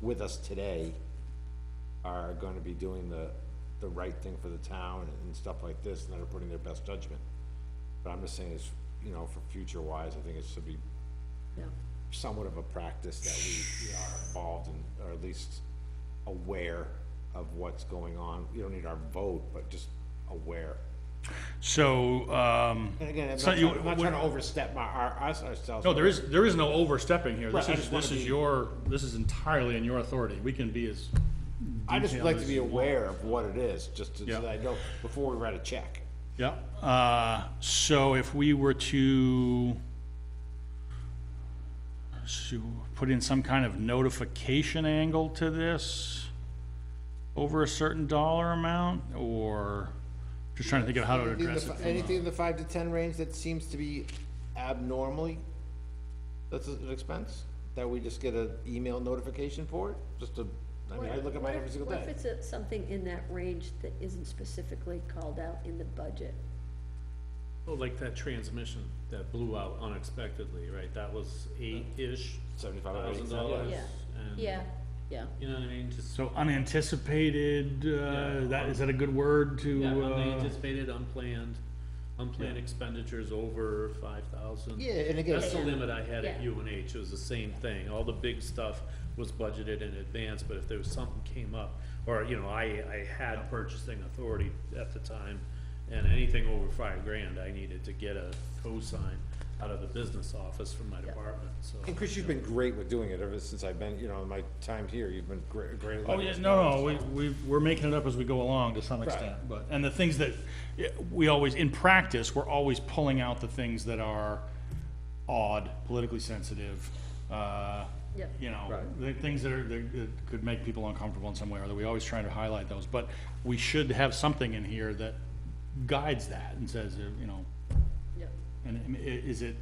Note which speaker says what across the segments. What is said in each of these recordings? Speaker 1: with us today are gonna be doing the, the right thing for the town and stuff like this, and that are putting their best judgment. But I'm just saying it's, you know, for future wise, I think it should be
Speaker 2: Yeah.
Speaker 1: somewhat of a practice that we, we are involved in, or at least aware of what's going on. You don't need our vote, but just aware.
Speaker 3: So, um,
Speaker 1: And again, I'm
Speaker 3: So
Speaker 1: not,
Speaker 3: you-
Speaker 1: trying- I'm not trying to overstep my, our, us, ourselves.
Speaker 3: no, there is, there is no overstepping here. This
Speaker 1: Right, I
Speaker 3: is,
Speaker 1: just wanna
Speaker 3: this is
Speaker 1: be-
Speaker 3: your, this is entirely in your authority. We can be as,
Speaker 1: I just would like to be
Speaker 3: detail is-
Speaker 1: aware of what it is, just to-
Speaker 3: Yeah.
Speaker 1: so that I know before we write a check.
Speaker 3: yeah. Uh, so if we were to so put in some kind of notification angle to this over a certain dollar amount, or just trying to think of how to
Speaker 1: Anything in
Speaker 3: address
Speaker 1: the
Speaker 3: it.
Speaker 1: fi-
Speaker 3: from a-
Speaker 1: Anything in the five to ten range that seems to be abnormally, that's an expense, that we just get an email notification for it, just to, I mean, I look at mine every single
Speaker 2: What if
Speaker 1: day.
Speaker 2: it's a- something in that range that isn't specifically called out in the budget?
Speaker 4: Well, like that transmission that blew out unexpectedly, right, that was eight-ish
Speaker 1: Seventy-five or eighty
Speaker 4: thousand
Speaker 1: cents,
Speaker 4: dollars.
Speaker 2: Yeah.
Speaker 4: and-
Speaker 2: Yeah, yeah.
Speaker 4: You know what I mean, just,
Speaker 3: So unanticipated,
Speaker 4: Yeah.
Speaker 3: uh, that, is that a good word to,
Speaker 4: yeah,
Speaker 3: uh,
Speaker 4: unanticipated, unplanned, unplanned expenditures over five thousand.
Speaker 1: yeah, and again,
Speaker 4: That's the
Speaker 2: Yeah.
Speaker 4: limit I had at
Speaker 2: Yeah.
Speaker 4: UNH, it was the same thing, all the big stuff was budgeted in advance, but if there was something came up, or, you know, I, I had purchasing authority at the time, and anything over five grand, I needed to get a cosign out of the business office from my department, so.
Speaker 1: and Chris, you've been great with doing it ever since I've been, you know, my time here, you've been great, great. at
Speaker 3: Oh,
Speaker 1: letting
Speaker 3: yeah,
Speaker 1: us know.
Speaker 3: no, no, we, we, we're making it up as we go along to some extent, but, and the things that, yeah, we always, in practice, we're always pulling out the things that are odd, politically sensitive, uh,
Speaker 2: Yep.
Speaker 3: you know,
Speaker 1: Right.
Speaker 3: the things that are, that that could make people uncomfortable in some way, or that we always try to highlight those, but we should have something in here that guides that and says, uh, you know,
Speaker 2: Yep.
Speaker 3: and I mean, i- is it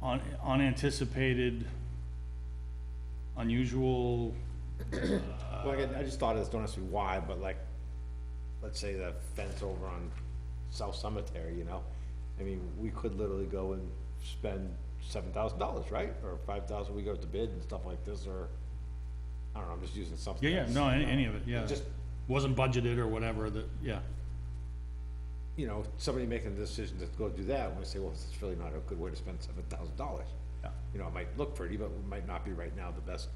Speaker 3: un- unanticipated, unusual?
Speaker 1: Well, again, I just thought it's, don't ask me why, but like, let's say the fence over on South Cemetery, you know? I mean, we could literally go and spend seven thousand dollars, right? Or five thousand, we go to bid and stuff like this, or, I don't know, I'm just using something.
Speaker 3: Yeah, yeah,
Speaker 1: that's,
Speaker 3: no, any,
Speaker 1: you know,
Speaker 3: any of it, yeah.
Speaker 1: Just,
Speaker 3: Wasn't budgeted or whatever, that, yeah.
Speaker 1: you know, somebody making the decision to go do that, we say, well, it's really not a good way to spend seven thousand dollars.
Speaker 3: Yeah.
Speaker 1: You know, it might look pretty, but it might not be right now the best,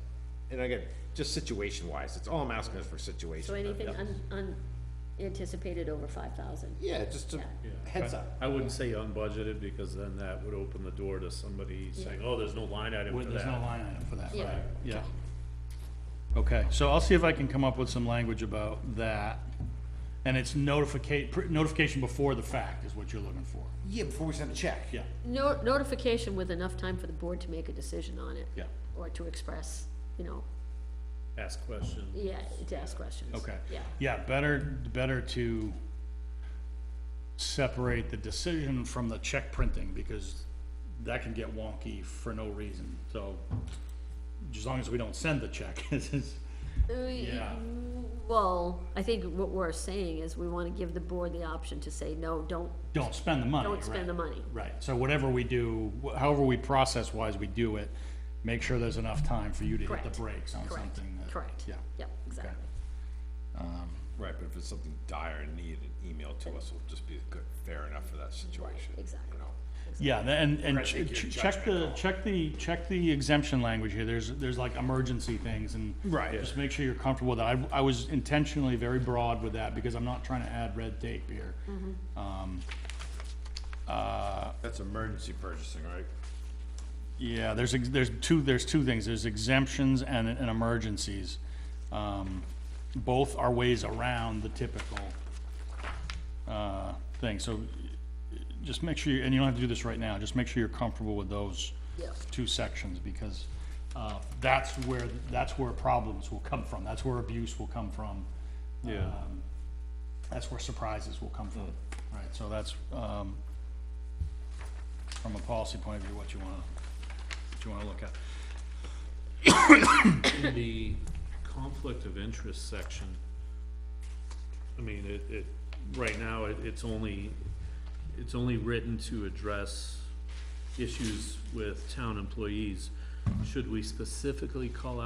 Speaker 1: and again, just situation-wise, it's all I'm asking is for situation.
Speaker 2: So anything
Speaker 1: Yeah.
Speaker 2: un- unanticipated over five thousand?
Speaker 1: Yeah, just a
Speaker 2: Yeah.
Speaker 1: heads up.
Speaker 4: I wouldn't say unbudgeted, because then that would open the door to somebody saying, oh, there's no line item
Speaker 3: Well,
Speaker 4: for
Speaker 3: There's no
Speaker 4: that.
Speaker 3: line item for that,
Speaker 2: Yeah.
Speaker 3: right? Yeah. Okay, so I'll see if I can come up with some language about that. And it's notificate, notification before the fact is what you're looking for.
Speaker 1: Yeah, before we send a check.
Speaker 3: Yeah,
Speaker 2: No, notification with enough time for the board to make a decision on it.
Speaker 3: Yeah.
Speaker 2: Or to express, you know,
Speaker 4: Ask question.
Speaker 2: yeah, to ask questions.
Speaker 3: okay.
Speaker 2: Yeah,
Speaker 3: Yeah, better, better to separate the decision from the check printing, because that can get wonky for no reason, so. As long as we don't send the check, it's, it's-
Speaker 2: We-
Speaker 3: Yeah.
Speaker 2: Well, I think what we're saying is we wanna give the board the option to say, no, don't,
Speaker 3: don't spend the money,
Speaker 2: don't spend
Speaker 3: right?
Speaker 2: the money.
Speaker 3: Right, so whatever we do, wh- however we process-wise we do it, make sure there's enough time for you to hit
Speaker 2: Correct.
Speaker 3: the brakes on
Speaker 2: Correct,
Speaker 3: something that.
Speaker 2: correct.
Speaker 3: Yeah,
Speaker 2: Yep, exactly.
Speaker 1: Right, but if it's something dire and need, an email to us will just be good, fair enough for that situation. you
Speaker 2: exactly.
Speaker 1: know?
Speaker 3: yeah, tha- and, and
Speaker 1: Right,
Speaker 3: ch-
Speaker 1: make your
Speaker 3: ch- check the,
Speaker 1: judgment
Speaker 3: check the, check the exemption language here, there's, there's like emergency things and.
Speaker 1: Right.
Speaker 3: Just make sure you're comfortable with that, I, I was intentionally very broad with that, because I'm not trying to add red tape here.
Speaker 1: Mm-hmm.
Speaker 3: Um, uh,
Speaker 1: That's emergency purchasing, right?
Speaker 3: Yeah, there's, ex- there's two, there's two things, there's exemptions and, and emergencies. Um, Both are ways around the typical, uh, thing, so uh, just make sure, you- and you don't have to do this right now, just make sure you're comfortable with those
Speaker 2: Yeah.
Speaker 3: two sections, because, uh, that's where, that's where problems will come from, that's where abuse will come from.
Speaker 4: Yeah.
Speaker 3: Um, That's where surprises will come from, right, so that's, um, from a policy point of view, what you wanna, what you wanna look at.
Speaker 4: In the conflict of interest section, I mean, it, it, right now, it, it's only, it's only written to address issues with town employees. Should we specifically call out?